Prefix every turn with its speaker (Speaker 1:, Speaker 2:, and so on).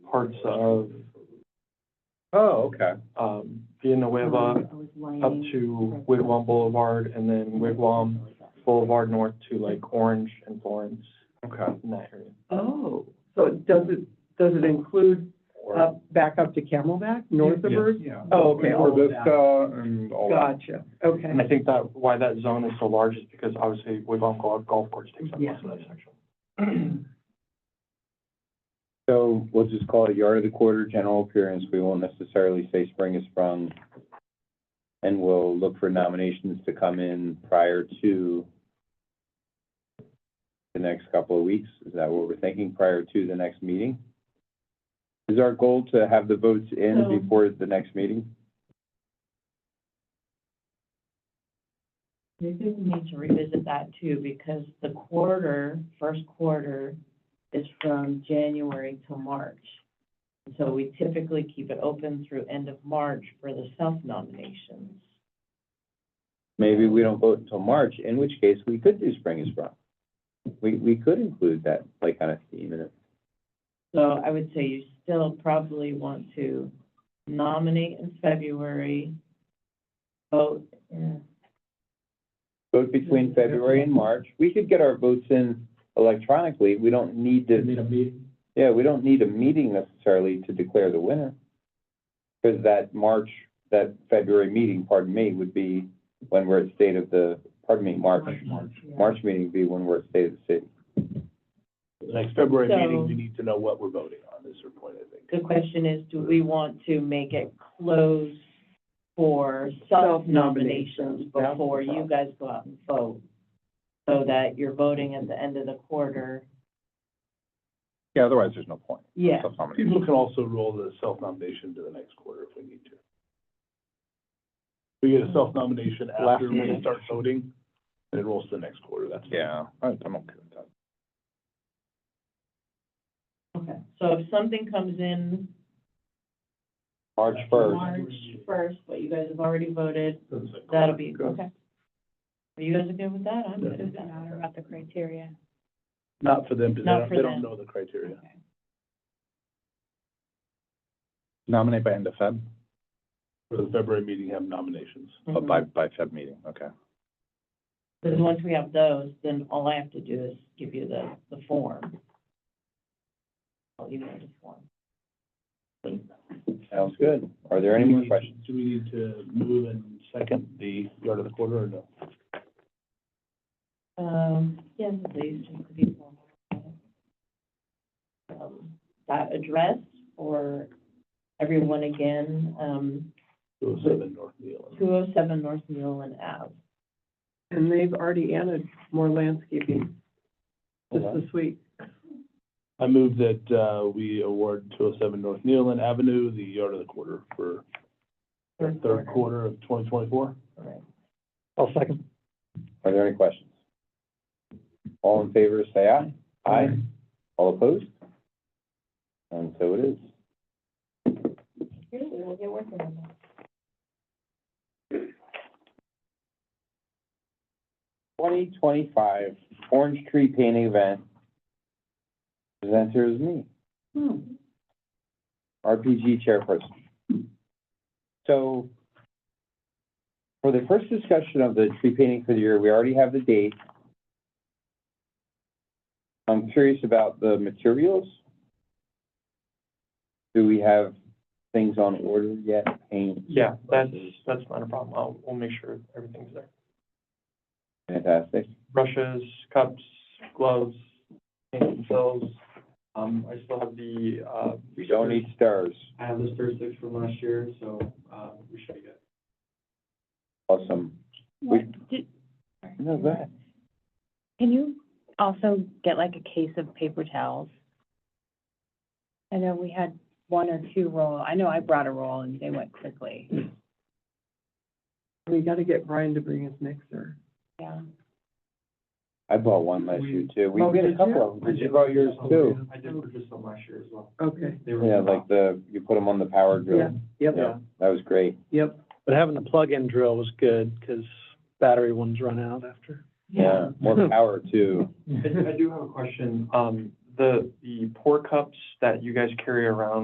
Speaker 1: parts of,
Speaker 2: Oh, okay.
Speaker 1: um, Villanueva up to Wigwam Boulevard and then Wigwam Boulevard North to like Orange and Florence
Speaker 2: Okay.
Speaker 1: in that area.
Speaker 3: Oh, so does it, does it include
Speaker 2: Or-
Speaker 3: up, back up to Camelback, north of
Speaker 1: Yes.
Speaker 3: Bird?
Speaker 2: Yeah.
Speaker 3: Uh, Oh, okay, all of that.
Speaker 2: Vista and all that.
Speaker 3: Gotcha, okay.
Speaker 1: And I think that, why that zone is so large is because obviously Wigwam Golf Golf Course takes up most of that section.
Speaker 4: So we'll just call it yard of the quarter, general appearance. We won't necessarily say spring is sprung. And we'll look for nominations to come in prior to the next couple of weeks. Is that what we're thinking, prior to the next meeting? Is our goal to have the votes in
Speaker 3: No.
Speaker 4: before the next meeting?
Speaker 5: Maybe we need to revisit that too, because the quarter, first quarter is from January to March. And So we typically keep it open through end of March for the self-nominations.
Speaker 4: Maybe we don't vote until March, in which case we could do spring is sprung. We, we could include that, like, on a theme in it.
Speaker 5: So I would say you still probably want to nominate in February, vote, yeah.
Speaker 4: vote between February and March. We could get our votes in electronically. We don't need to,
Speaker 1: Need a meeting?
Speaker 4: yeah, we don't need a meeting necessarily to declare the winner. Because that March, that February meeting, pardon me, would be when we're at state of the, pardon me, March.
Speaker 5: yeah.
Speaker 4: March meeting would be when we're at state of the city.
Speaker 6: Next February meeting,
Speaker 5: So-
Speaker 6: we need to know what we're voting on, is your point, I think.
Speaker 5: The question is, do we want to make it close for self-nominations
Speaker 3: Self-nominations, that's
Speaker 5: before
Speaker 3: the
Speaker 5: you guys go out and vote? So that you're voting at the end of the quarter?
Speaker 4: Yeah, otherwise there's no point.
Speaker 5: Yeah.
Speaker 6: People can also roll the self-nomination to the next quarter if we need to. We get a self-nomination
Speaker 1: Last
Speaker 6: after we
Speaker 1: minute.
Speaker 6: start voting, and it rolls to the next quarter, that's. fine.
Speaker 4: I'm okay with that.
Speaker 5: Okay. So if something comes in
Speaker 4: March first.
Speaker 5: March first, but you guys have already voted,
Speaker 6: That's it.
Speaker 5: that'll be,
Speaker 6: Good.
Speaker 5: okay. Are you guys okay with that? I'm good with that.
Speaker 7: matter about the criteria.
Speaker 6: Not for them, because they
Speaker 5: Not
Speaker 6: don't,
Speaker 5: for
Speaker 6: they don't
Speaker 5: them.
Speaker 6: know the criteria.
Speaker 4: Nominate by end of Feb,
Speaker 6: For the February meeting, have nominations.
Speaker 5: Mhm.
Speaker 4: Oh, by Feb meeting, okay.
Speaker 5: Because once we have those, then all I have to do is give you the, the form. I'll email the form.
Speaker 4: Sounds good. Are there any more
Speaker 6: Do we need-
Speaker 4: questions?
Speaker 6: Do we need to move and second the yard of the quarter or no?
Speaker 5: Um, yes, please, just to be formal. Um, That address for everyone again, um,
Speaker 6: Two oh seven North Neal.
Speaker 5: two oh seven North Newland Ave.
Speaker 3: And they've already added more landscaping just
Speaker 6: Okay.
Speaker 3: this week.
Speaker 6: I move that, uh, we award two oh seven North Nealon Avenue, the yard of the quarter for the third quarter of twenty twenty-four.
Speaker 5: Correct.
Speaker 1: I'll second.
Speaker 4: Are there any questions? All in favor, say aye. Aye. All opposed? And so it is.
Speaker 5: Here, we will get working on that.
Speaker 4: Twenty twenty-five Orange Tree Painting Event. Presenter is me,
Speaker 3: Hmm.
Speaker 4: RPG Chairperson. So for the first discussion of the tree painting for the year, we already have the date. I'm curious about the materials. Do we have things on order yet? Paint?
Speaker 1: Yeah, that's, that's not a problem. I'll, we'll make sure everything's there.
Speaker 4: Fantastic.
Speaker 1: brushes, cups, gloves, paint themselves. Um, I still have the, uh.
Speaker 4: We don't need stars.
Speaker 1: I have the stir sticks from last year, so, uh, we should be good.
Speaker 4: Awesome. We- No, go ahead.
Speaker 7: Can you also get like a case of paper towels? I know we had one or two roll, I know I brought a roll and they went quickly,
Speaker 3: We gotta get Brian to bring his mixer.
Speaker 7: yeah.
Speaker 4: I bought one last year too. We
Speaker 3: Oh,
Speaker 4: did a
Speaker 3: did
Speaker 4: couple
Speaker 3: you?
Speaker 4: of them, because you brought yours too.
Speaker 1: I did purchase some last year as well.
Speaker 3: Okay,
Speaker 1: They were.
Speaker 4: Yeah, like the, you put them on the power
Speaker 3: yeah,
Speaker 4: drill.
Speaker 3: yep,
Speaker 4: Yeah, that was great.
Speaker 3: yep.
Speaker 8: But having the plug-in drill was good, because battery ones run out after.
Speaker 4: Yeah, more power too.
Speaker 1: I I do have a question. Um, the, the pour cups that you guys carry around